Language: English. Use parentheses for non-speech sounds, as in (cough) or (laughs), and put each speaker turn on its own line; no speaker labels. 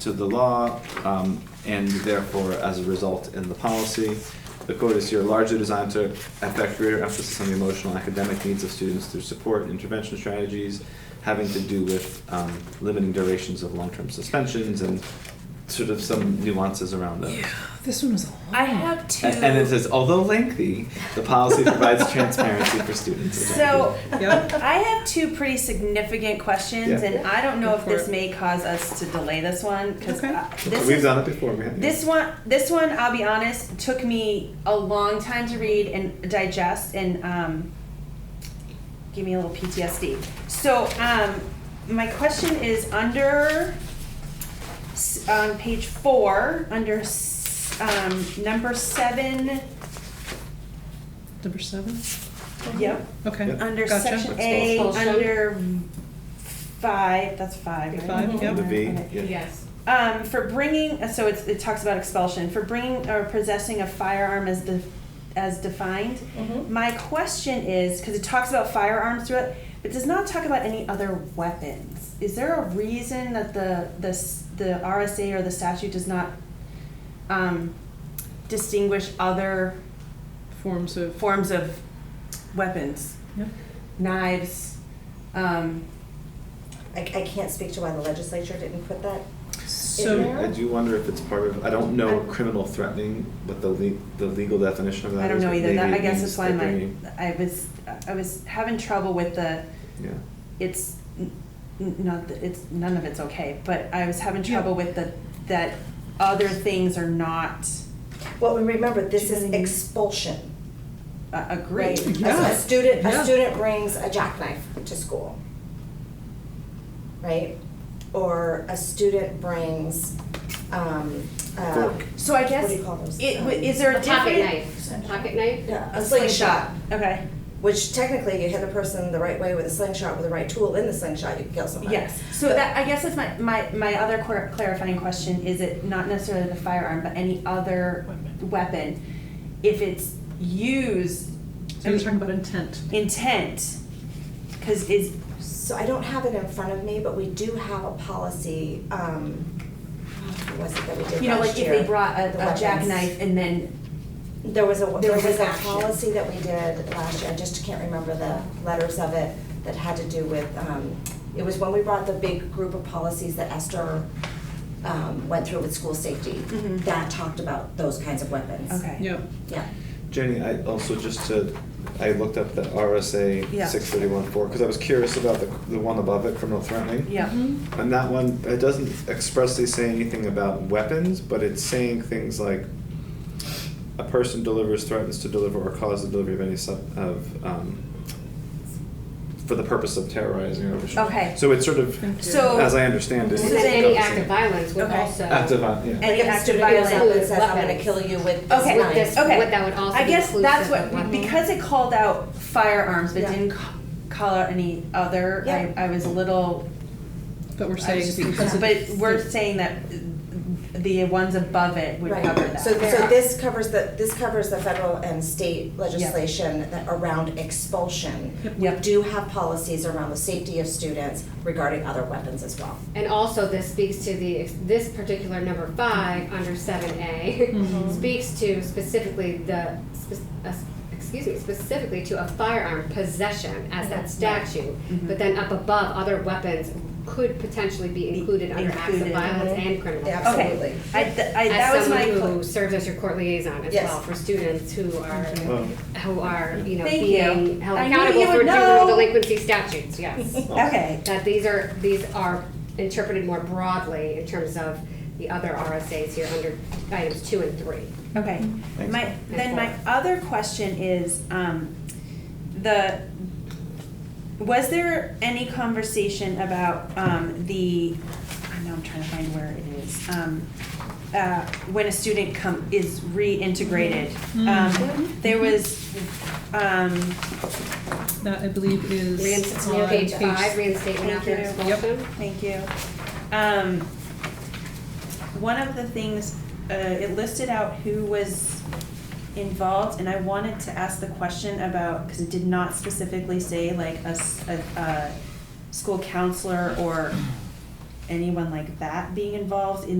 to the law, um, and therefore, as a result, in the policy. The quote is here largely designed to affect greater emphasis on the emotional and academic needs of students through support and intervention strategies having to do with um, limiting durations of long term suspensions and sort of some nuances around those.
This one was a long
I have two.
A- And, it says, although lengthy, the policy provides transparency for students.
So
Yep.
I have two pretty significant questions,
Yeah.
and I don't know
Go
if
for
this
it.
may cause us to delay this one because
Okay.
this
We've
is-
done it before. We haven't-
This one, this one, I'll be honest, took me a long time to read and digest, and um, give me a little PTSD. So, um, my question is under s- on page four, under s- um, number seven.
Number seven?
Yep.
Okay.
Yep.
Under
Gotcha.
section A,
Expulsion.
under five. That's five.
Big
right?
five,
And
yep.
The V,
Okay.
yeah.
Yes.
Um, for bringing, so it's, it talks about expulsion, for bringing or possessing a firearm as the, as defined.
Mhm.
My question is, because it talks about firearms throughout, but does not talk about any other weapons. Is there a reason that the, the, s- the RSA or the statute does not, um, distinguish other
Forms of.
forms of weapons?
Yep.
Knives, um,
I, I can't speak to why the legislature didn't put that.
So,
there?
I do wonder if it's part of, I don't know
I-
criminal threatening, but the le- the legal definition of that
I don't
is
know
that
either. That,
maybe
I
it
guess
means
that's why
they're
my,
bringing-
I was, I was having trouble with the,
Yeah.
it's n- n- not, that it's, none of it's okay, but I was having
Yeah.
trouble with the, that other things are not
Well, and remember, this
Do you
is
know what I mean?
expulsion,
uh,
right?
agreed.
A-
Yeah.
A student,
Yeah.
a student brings a jackknife to school, right? Or a student brings, um, uh,
Fork.
So I guess,
what do you
it,
call those?
wa-
Um,
is there a
A pocket
different?
knife, a pocket knife?
Yeah, a slingshot,
Okay,
which technically you hit the person the right way with a slingshot, with the right tool in the slingshot, you can kill somebody.
yes. So that, I guess that's my, my, my other clar- clarifying question, is it not necessarily the firearm, but any other weapon? If it's used.
so you're talking about intent.
intent, because is,
So I don't have it in front of me, but we do have a policy, um, what was it that we did last year?
you know, like if they brought
The
a, a
weapons.
jackknife and then,
There was a, there was a
action.
policy that we did last year, I just can't remember the letters of it, that had to do with, um, it was when we brought the big group of policies that Esther, um, went through with school safety,
Mhm.
that talked about those kinds of weapons.
okay.
Yep.
Yeah.
Jenny, I also just to, I looked up the
Yeah.
RSA six thirty one four, because I was curious about the, the one above it, criminal threatening.
Yeah.
Mhm.
And that one, it doesn't expressly say anything about weapons, but it's saying things like a person delivers, threatens to deliver, or cause the delivery of any sub, of, um, for the purpose of terrorizing or destroying.
Okay.
So it's sort of,
Thank you.
So-
as I understand it.
So
Is
then
it
any
encompassing
act of violence would
Okay.
also.
Act of vi- yeah.
Any
Like if a
act of
student goes up and
violence.
says, I'm gonna
Weapons.
kill you with this
Okay.
knife.
With this,
Okay.
what that would also
I
be
guess
inclusive
that's
of
what,
weapon.
because it called out firearms but
Yeah.
didn't ca- call out any other, I,
Yeah.
I was a little,
But we're
I was
saying
just
because of.
confused. but we're saying that the ones above it would
Right.
cover that.
So, so this covers the, this covers the federal and state legislation that around expulsion.
Yep.
Yep.
We do have policies around the safety of students regarding other weapons as well.
And also this speaks to the, ex- this particular number five, under seven A, (laughs)
Mm-hmm.
Mhm.
speaks to specifically the, spe- uh, excuse me, specifically to a firearm possession as that statute.
Mhm.
But then up above, other weapons could potentially be
Be
included under acts of
included.
violence and criminal.
Yeah,
justice.
Okay,
Absolutely.
I, th- I, that
As
was my.
someone
cl-
who serves as your court liaison as
Yes.
well for students who are,
Well,
who are, you know,
Thank
being
you.
held
I knew you
accountable for
would know.
juvenile delinquency statutes, yes.
(laughs) Okay,
that these are, these are interpreted more broadly in terms of the other RSAs here under items two and three.
Okay.
Thanks.
My, then
And
my other question is, um, the, was there any conversation about, um, the, I know I'm trying to find where it is, um, uh, when a student come, is reintegrated?
Mm-hmm.
Um, there was, um,
That I believe is
Reinst-
on
Page
page.
five, reinstatement
Thank
after
you.
expulsion.
Thank you. Um, one of the things, uh, it listed out who was involved, and I wanted to ask the question about, because it did not specifically say like a, s- a- a school counselor or anyone like that being involved in